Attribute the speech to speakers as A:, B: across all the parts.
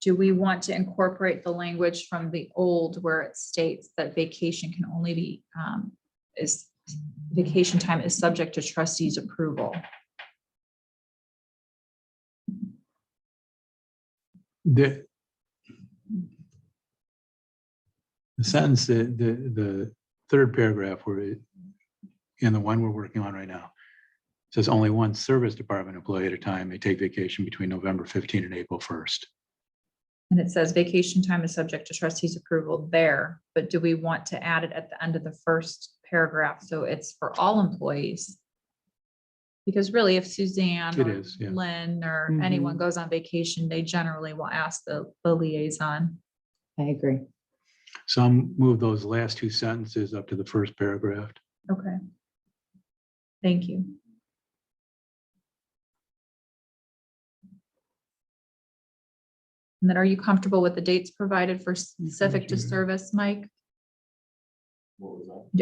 A: do we want to incorporate the language from the old where it states that vacation can only be, um, is, vacation time is subject to trustees approval?
B: The the sentence, the, the, the third paragraph where it, and the one we're working on right now, says only one service department employee at a time may take vacation between November 15 and April 1st.
A: And it says vacation time is subject to trustees approval there, but do we want to add it at the end of the first paragraph? So it's for all employees? Because really if Suzanne
B: It
A: or
B: is, yeah.
A: Lynn or anyone goes on vacation, they generally will ask the, the liaison.
C: I agree.
B: Some move those last two sentences up to the first paragraph.
A: Okay. Thank you. And then are you comfortable with the dates provided for specific to
B: Mhm.
A: service, Mike?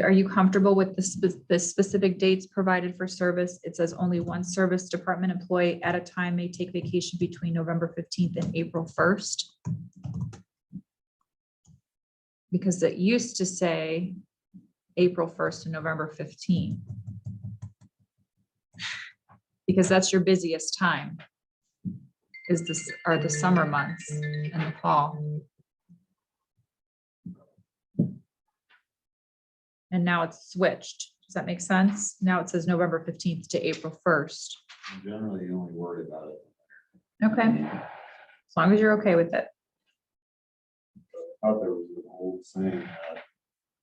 A: Are you comfortable with the spe- the specific dates provided for service? It says only one service department employee at a time may take vacation between November fifteenth and April first. Because it used to say April first and November fifteenth. Because that's your busiest time. Is this, are the summer months and the fall. And now it's switched. Does that make sense? Now it says November fifteenth to April first.
D: Generally, you only worry about it.
A: Okay, as long as you're okay with it.
D: I thought there was an old saying that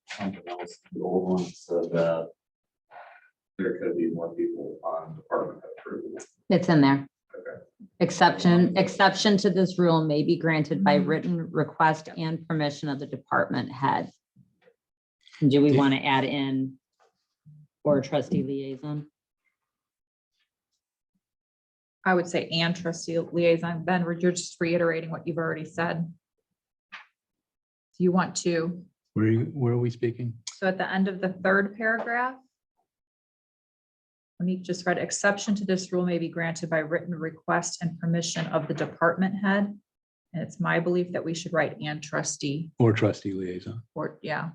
D: something else, the old one said that there could be more people on department head approval.
C: It's in there.
D: Okay.
C: Exception, exception to this rule may be granted by
A: Mm-hmm.
C: written request and permission of the department head. Do we
B: Yeah.
C: want to add in or trustee liaison?
A: I would say and trustee liaison, Ben, we're- you're just reiterating what you've already said. Do you want to,
B: Where, are you- where are we speaking?
A: so at the end of the third paragraph. Let me just read, exception to this rule may be granted by written request and permission of the department head. And it's my belief that we should write and trustee
B: Or trustee liaison.
A: or, yeah,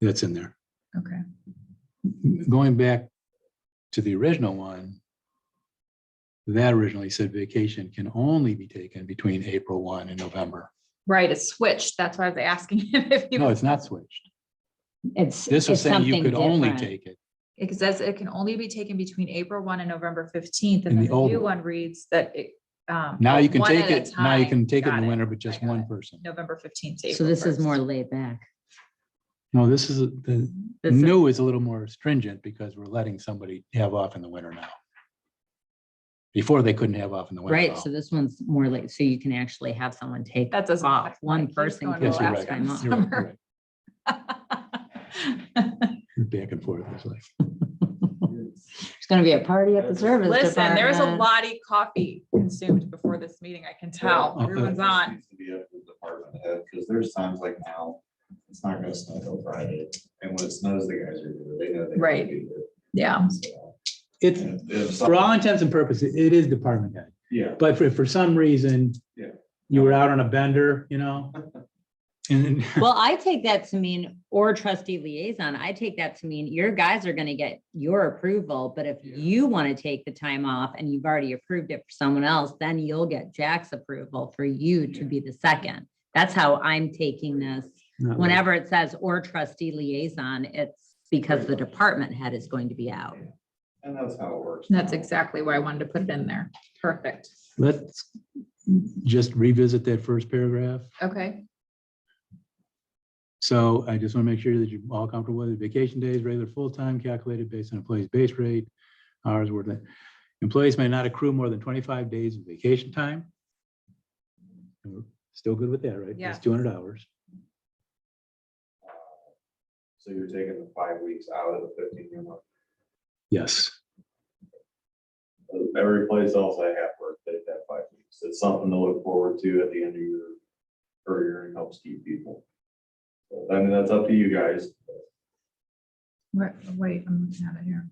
B: That's in there.
A: okay.
B: going back to the original one, that originally said vacation can only be taken between April one and November.
A: Right, it's switched. That's why I was asking him if
B: No,
A: you,
B: it's not switched.
C: It's.
B: This was
C: it's
B: saying you
C: something
B: could only
C: different.
B: take it.
A: it says it can only be taken between April one and November fifteenth.
B: In
A: And then
B: the
A: the
B: old
A: new
B: one.
A: one reads that it. um,
B: Now you can
A: one
B: take
A: at a
B: it, now you
A: time.
B: can take it in
A: Got
B: the winter, but just
A: got
B: one
A: it.
B: person.
A: November fifteenth.
C: So this is more laid back.
B: No, this is, the
C: This is-
B: new is a little more stringent because we're letting somebody have off in the winter now. Before they couldn't have off in the winter. at
C: Right,
B: all.
C: so this one's more like, so you can actually have someone take.
A: That doesn't
C: off.
A: affect my
C: One
A: kids
C: person.
A: going
C: can
A: to
B: Yes, you're
C: take
A: Alaska
B: right.
A: in
C: time off.
B: You're right, you're
A: summer.
B: right. Back and forth. It's like,
C: There's gonna be a party at the service
A: Listen, there was a
C: department.
A: lot of coffee consumed before this meeting, I can tell.
B: Oh, Okay.
A: Everyone's on.
D: Needs to be up to the department head, because there's times like now, it's not gonna snow till Friday, and when it snows, the guys are, there. they know they.
A: Right. Um. Yeah.
B: It's,
D: It's,
B: for all intents and purposes, it is department head.
D: Yeah,
B: But for, for some reason.
D: Yeah.
B: You were out on a bender, you know? And
C: Well, I take that to mean, or trustee liaison, I take that to mean your guys are gonna get your approval, but if
D: Yeah.
C: you wanna take the time off and you've already approved it for someone else, then you'll get Jack's approval for you to
D: Yeah.
C: be the second. That's how I'm taking this.
B: not really.
C: Whenever it says or trustee liaison, it's because the department head is going to be out.
D: and that's how it works.
A: That's
D: now.
A: exactly why I wanted to put it in there. Perfect.
B: Let's just revisit that first paragraph.
A: Okay.
B: So I just want to make sure that you're all comfortable with it. Vacation days, regular full-time calculated based on employee's base rate, hours worth. Employees may not accrue more than twenty-five days of vacation time. And we're Still good with that, right?
A: Yeah.
B: That's two hundred hours.
D: So you're taking the five weeks out of the fifteen year month.
B: Yes.
D: Every place else I have worked, they have five weeks. It's something to look forward to at the end of your career and helps keep people. So, I mean, that's up to you guys.
A: Wait, wait, I'm looking at it here.